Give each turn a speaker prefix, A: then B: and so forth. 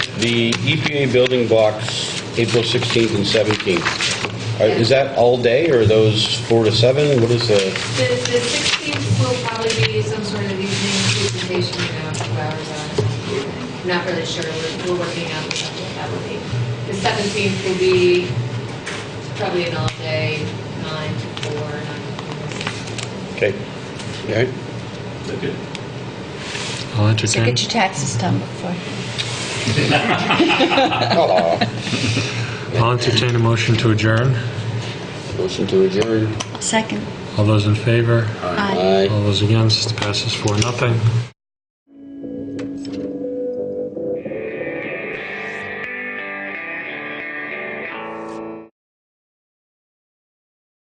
A: the EPA building blocks, April 16th and 17th. Are- Is that all day, or are those 4 to 7? What is the,
B: The, the 16th will probably be some sort of evening presentation, you know, two hours on. Not really sure, we're, we're working out what that will be. The 17th will be probably an all-day, nine to four, nine to four.
A: okay. All right.
C: I'll
D: So
C: entertain.
D: get your taxes done before.
C: I'll entertain a motion to adjourn.
A: Motion to adjourn.
D: Second.
C: All those in favor?
A: Aye.
D: Aye.
C: All those against? Passes four, nothing.